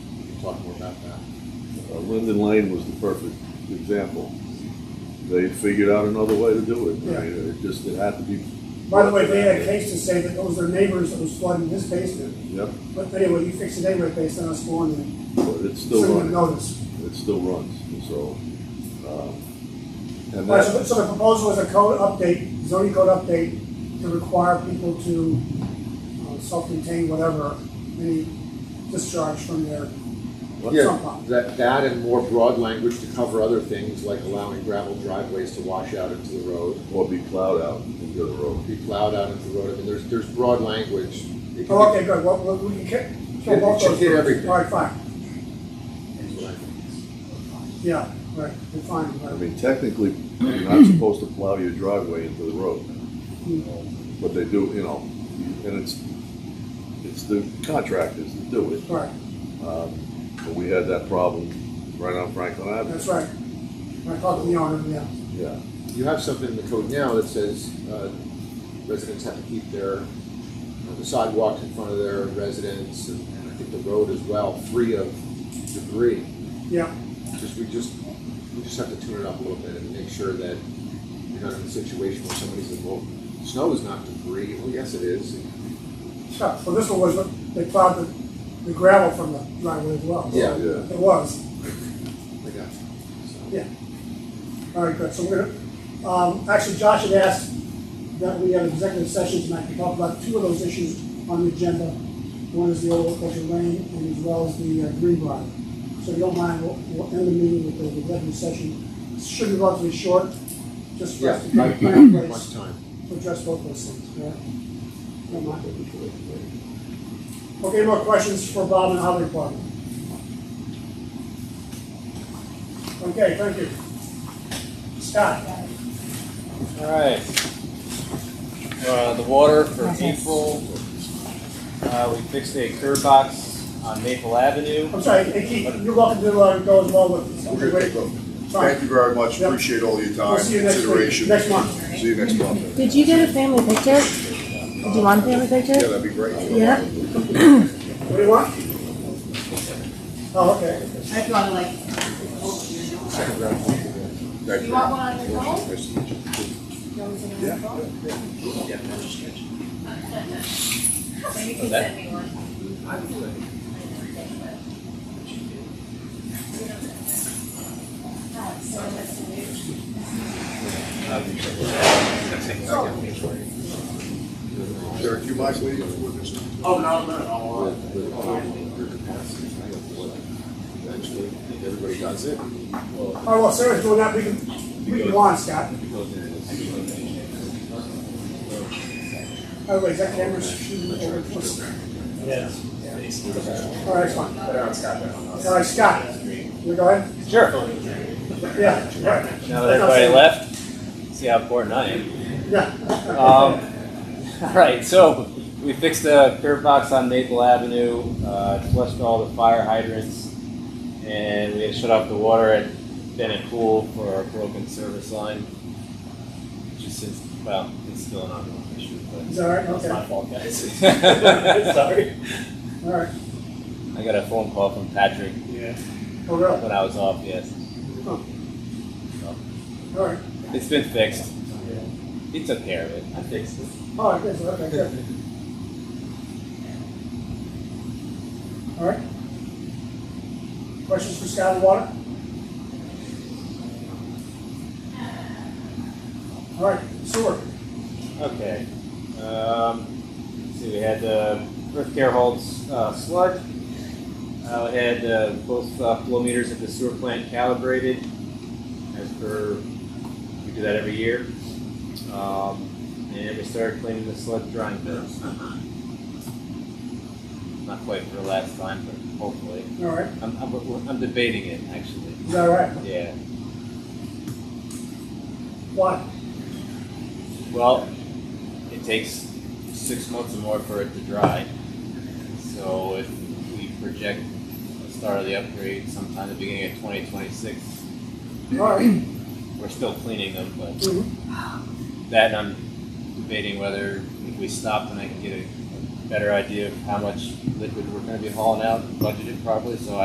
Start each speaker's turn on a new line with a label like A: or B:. A: talk more about that.
B: Uh, Linden Lane was the perfect example. They figured out another way to do it. I mean, It just, it had to be.
C: By the way, they had a case to say that those are neighbors that was flooding his basement,
B: Yep,
C: but anyway, you fix it anyway based on us going and
B: but it's still
C: sending a
B: running.
C: notice.
B: It still runs, and so. um, And
C: All right, so,
B: that,
C: so the proposal was a code update, zoning code update to require people to uh, self-contain whatever, any discharge from their
A: Yeah,
C: sump pump.
A: that, that and more broad language to cover other things like allowing gravel driveways to wash out into the road,
B: or be plowed out into the road.
A: be plowed out into the road. I mean, there's, there's broad language. It can
C: Oh,
A: be-
C: okay, good, well, well, we can kick,
A: Yeah,
C: kill both
A: you should
C: those.
A: hit
C: groups.
A: everything.
C: All right, fine, yeah, right, we're fine,
B: I
C: right.
B: mean, technically, you're not supposed to plow your driveway into the road.
C: Hmm.
B: Um, But they do, you know, and it's, it's the contractors that do it.
C: Right,
B: Um, But we had that problem right on Franklin Avenue.
C: that's right. I talked to the owner, yeah.
B: Yeah,
A: You have something in the code now that says uh, residents have to keep their, uh, the sidewalks in front of their residence and and I think the road as well, free of debris.
C: Yeah,
A: Just, we just, we just have to tune it up a little bit and make sure that you're not in a situation where somebody says, well, snow is not debris. Well, yes, it is.
C: sure. So this one was, what they plowed the, the gravel from the driveway as well.
A: Yeah.
B: yeah.
C: It was,
A: I got you. So-
C: yeah. All right, good. So we're, gonna- um, actually Josh had asked that we have executive sessions tonight to talk about two of those issues on the agenda. One is the old Orchard Lane and as well as the uh, Green Bar. So if you don't mind, we'll, we'll end the meeting with the executive session. It Should be relatively short, just for
A: Yeah,
C: us to
A: not,
C: get a
A: not much
C: place
A: time.
C: to address both those things, yeah? Don't mind. Okay, more questions for Bob and Highway Department? Okay, thank you. Scott?
D: All right. Uh, the water for April, uh, we fixed a curb box on Maple Avenue.
C: I'm sorry, hey Keith, you're welcome to uh, go as well with.
E: We're gonna take vote. Thank you very much, appreciate all your time,
C: We'll see you next week,
E: consideration.
C: next month.
E: See you next month.
F: Did you get a family picture? Did you want a family
E: Yeah,
F: picture?
E: that'd be great.
F: Yeah.
C: What do you want? Oh, okay.
G: I'd wanna like,
E: Thank
G: you want one on your phone?
E: Nice to meet you.
G: Maybe you can send me one.
E: Derek, do you mind waiting for this?
H: Oh, no, no, no.
A: um, Eventually, I think everybody does it.
C: All right, well, Sarah's doing that, we can, we can go on, Scott. By the way, Oh, is that camera shooting over?
H: Yes.
C: All right, it's fine. All right, Scott, you go ahead?
D: Sure.
C: Yeah, right.
D: Now that everybody left, see how important I am.
C: Yeah.
D: Um, all right, so we fixed the curb box on Maple Avenue, uh, flushed all the fire hydrants, and we had to shut off the water at Bennett Pool for our broken service line. Which is since, well, it's still an ongoing issue,
C: Is
D: but
C: that all right?
D: it's
C: Okay,
D: my fault, guys. Sorry.
C: all right.
D: I got a phone call from Patrick
H: Yeah.
C: Oh, really?
D: when I was off, yes.
C: Oh. All right.
D: It's been fixed. He took care of it. I fixed it.
C: Oh, I guess, okay, good. All right. Questions for Scott and Water? All right, sewer.
D: Okay. Um, let's see, we had uh, Earth Care Holds uh, sludge. Uh, we had uh, both uh, flow meters at the sewer plant calibrated as per we do that every year. Um, and we started cleaning the sludge drying bins. Not quite for the last time, but hopefully.
C: All right,
D: I'm, I'm, I'm debating it actually.
C: is that all right?
D: Yeah.
C: Why?
D: Well, it takes six months or more for it to dry. So if we project the start of the upgrade sometime the beginning of 2026,
C: All right.
D: we're still cleaning them, but
C: Mhm.
D: that and I'm debating whether if we stop then I can get a better idea of how much liquid we're going to be hauling out and budget it properly. So